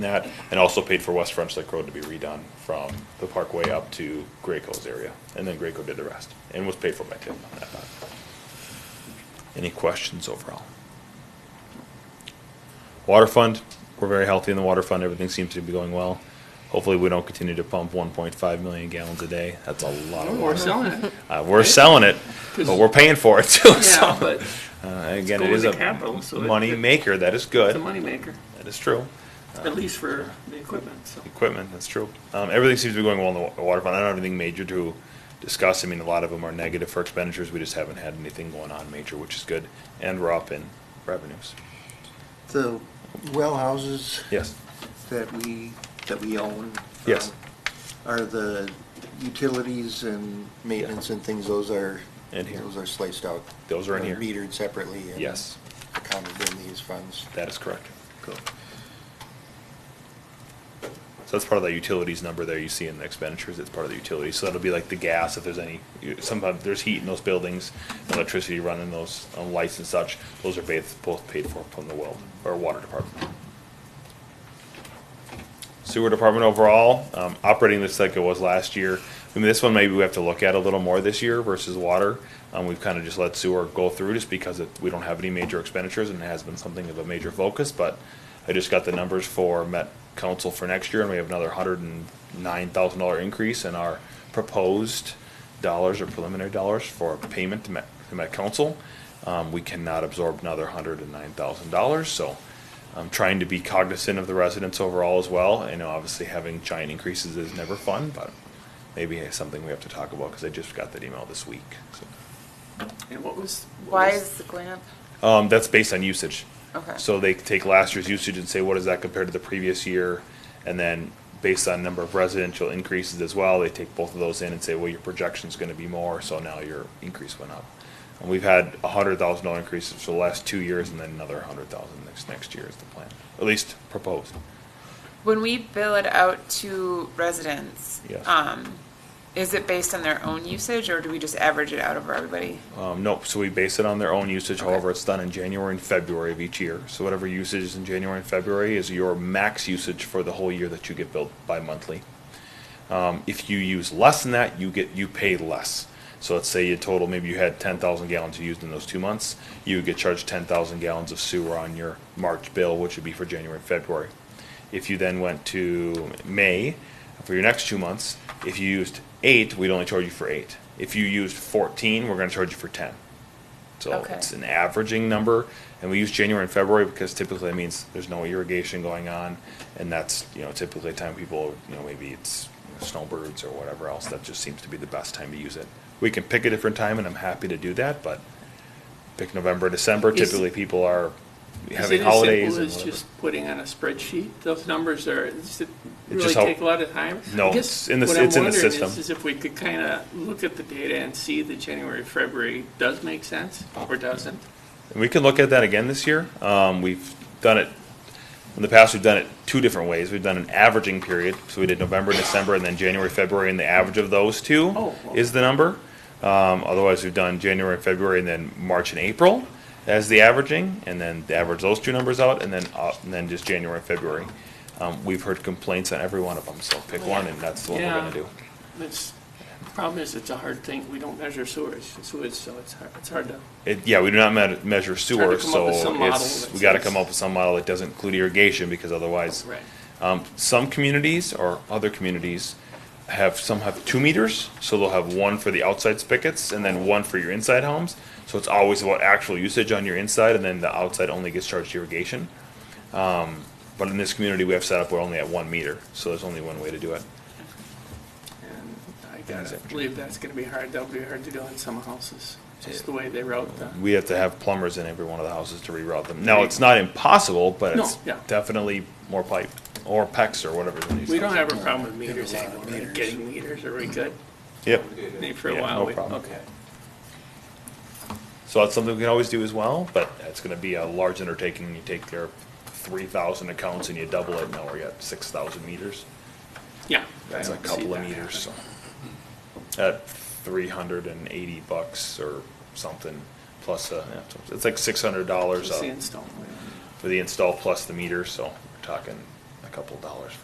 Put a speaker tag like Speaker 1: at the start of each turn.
Speaker 1: that, and also paid for West French Lake Road to be redone from the Parkway up to Graco's area, and then Graco did the rest, and was paid for by Tim on that. Any questions overall? Water fund, we're very healthy in the water fund, everything seems to be going well. Hopefully, we don't continue to pump one point five million gallons a day, that's a lot of
Speaker 2: Or
Speaker 1: water.
Speaker 2: selling it.
Speaker 1: Uh, we're selling it, but we're paying for it too,
Speaker 2: Yeah,
Speaker 1: so,
Speaker 2: but
Speaker 1: uh, again,
Speaker 2: It's
Speaker 1: it
Speaker 2: going
Speaker 1: is
Speaker 2: to
Speaker 1: a
Speaker 2: capital, so it-
Speaker 1: money maker, that is
Speaker 2: it's a
Speaker 1: good,
Speaker 2: moneymaker,
Speaker 1: that is true.
Speaker 2: at least for the equipment, so.
Speaker 1: equipment. That's true. Um, everything seems to be going well in the wa- water fund. I don't have anything major to discuss. I mean, a lot of them are negative for expenditures. We just haven't had anything going on major, which is good. And we're up in revenues.
Speaker 3: The well houses
Speaker 1: Yes.
Speaker 3: that we, that we own.
Speaker 1: Yes.
Speaker 3: um, Are the utilities and maintenance and things, those are,
Speaker 1: In here.
Speaker 3: those are sliced out?
Speaker 1: Those are in
Speaker 3: They're
Speaker 1: here.
Speaker 3: Metered separately? and
Speaker 1: Yes.
Speaker 3: Accounted in these funds?
Speaker 1: That is correct.
Speaker 3: Cool.
Speaker 1: So that's part of that utilities number there you see in the expenditures. It's part of the utilities. So that'll be like the gas if there's any, you- sometimes there's heat in those buildings, electricity running those, uh, lights and such. Those are both, both paid for from the well, or water department. sewer department overall, um, operating this like it was last year. I mean, this one maybe we have to look at a little more this year versus water. Um, we've kind of just let sewer go through just because it, we don't have any major expenditures and it has been something of a major focus, but I just got the numbers for Met Council for next year and we have another hundred and nine thousand dollar increase in our proposed dollars or preliminary dollars for payment to Met, to Met Council. Um, we cannot absorb another hundred and nine thousand dollars, so I'm trying to be cognizant of the residents overall as well. I know obviously having giant increases is never fun, but maybe it's something we have to talk about because I just got that email this week. So,
Speaker 2: And what was? what
Speaker 4: Why
Speaker 2: was-
Speaker 4: is the cleanup?
Speaker 1: um, that's based on usage.
Speaker 4: Okay.
Speaker 1: So they take last year's usage and say, what is that compared to the previous year? And then based on number of residential increases as well, they take both of those in and say, well, your projection's gonna be more, so now your increase went up. And we've had a hundred thousand dollar increases for the last two years and then another hundred thousand next, next year is the plan, at least proposed.
Speaker 4: When we bill it out to residents,
Speaker 1: Yes.
Speaker 4: um, is it based on their own usage or do we just average it out over everybody?
Speaker 1: Um, nope, so we base it on their own usage,
Speaker 4: Okay.
Speaker 1: however, it's done in January and February of each year. So whatever usage is in January and February is your max usage for the whole year that you get billed bi-monthly. Um, if you use less than that, you get, you pay less. So let's say you total, maybe you had ten thousand gallons you used in those two months, you would get charged ten thousand gallons of sewer on your March bill, which would be for January and February. If you then went to May for your next two months, if you used eight, we'd only charge you for eight. If you used fourteen, we're gonna charge you for ten. So
Speaker 4: Okay.
Speaker 1: it's an averaging number, and we use January and February because typically it means there's no irrigation going on, and that's, you know, typically a time people, you know, maybe it's you know, snowbirds or whatever else, that just seems to be the best time to use it. We can pick a different time, and I'm happy to do that, but pick November, December,
Speaker 2: Is-
Speaker 1: typically people are
Speaker 2: is it
Speaker 1: having
Speaker 2: as simple
Speaker 1: holidays and
Speaker 2: as
Speaker 1: whatever.
Speaker 2: just putting on a spreadsheet, those numbers are, does it really
Speaker 1: just how-
Speaker 2: take a lot of time? I
Speaker 1: No,
Speaker 2: guess
Speaker 1: it's in the-
Speaker 2: what I'm
Speaker 1: it's in the
Speaker 2: wondering
Speaker 1: system.
Speaker 2: is- Is if we could kind of look at the data and see that January, February does make sense or doesn't?
Speaker 1: We can look at that again this year. Um, we've done it, in the past, we've done it two different ways. We've done an averaging period, so we did November, December, and then January, February, and the average of those two
Speaker 2: Oh, wow.
Speaker 1: is the number. Um, otherwise, we've done January, February, and then March and April as the averaging, and then the average those two numbers out, and then, uh, and then just January, and February. Um, we've heard complaints on every one of them, so pick one, and that's the one we're
Speaker 2: Yeah.
Speaker 1: gonna do.
Speaker 2: It's, the problem is, it's a hard thing, we don't measure sewage, sewage, so it's hard, it's hard to,
Speaker 1: It, yeah, we do not me- measure
Speaker 2: come
Speaker 1: sewer,
Speaker 2: up
Speaker 1: so
Speaker 2: with some model
Speaker 1: it's,
Speaker 2: that
Speaker 1: we gotta
Speaker 2: says-
Speaker 1: come up with some model that doesn't include irrigation, because otherwise,
Speaker 2: right.
Speaker 1: Um, some communities or other communities have, some have two meters, so they'll have one for the outside spigots and then one for your inside homes. So it's always about actual usage on your inside and then the outside only gets charged irrigation. Um, but in this community, we have set up, we're only at one meter, so there's only one way to do it.
Speaker 2: And I gotta believe that's gonna be hard, that'll be hard to do in some houses, just the way they route the.
Speaker 1: We have to have plumbers in every one of the houses to reroute them. Now, it's not impossible, but
Speaker 2: No,
Speaker 1: it's
Speaker 2: yeah.
Speaker 1: definitely more pipe or PEX or whatever. it is.
Speaker 2: We don't have a problem with meters
Speaker 3: There's a lot of
Speaker 2: anymore, right?
Speaker 3: meters.
Speaker 2: getting meters, are we good?
Speaker 1: Yep.
Speaker 2: Maybe for
Speaker 1: Mm-hmm. Yeah,
Speaker 2: a
Speaker 1: no
Speaker 2: while, we,
Speaker 1: problem.
Speaker 2: okay.
Speaker 1: So that's something we can always do as well, but it's gonna be a large undertaking. You take your three thousand accounts and you double it, now we're at six thousand meters.
Speaker 2: Yeah.
Speaker 1: That's
Speaker 2: I
Speaker 1: a
Speaker 2: don't see
Speaker 1: couple of
Speaker 2: that
Speaker 1: meters, so. At three hundred and eighty bucks or something, plus, uh, yeah, so it's like six hundred
Speaker 2: happening.
Speaker 1: dollars
Speaker 2: It's
Speaker 1: uh,
Speaker 2: the install.
Speaker 1: for the install plus the meter, so we're talking a couple dollars for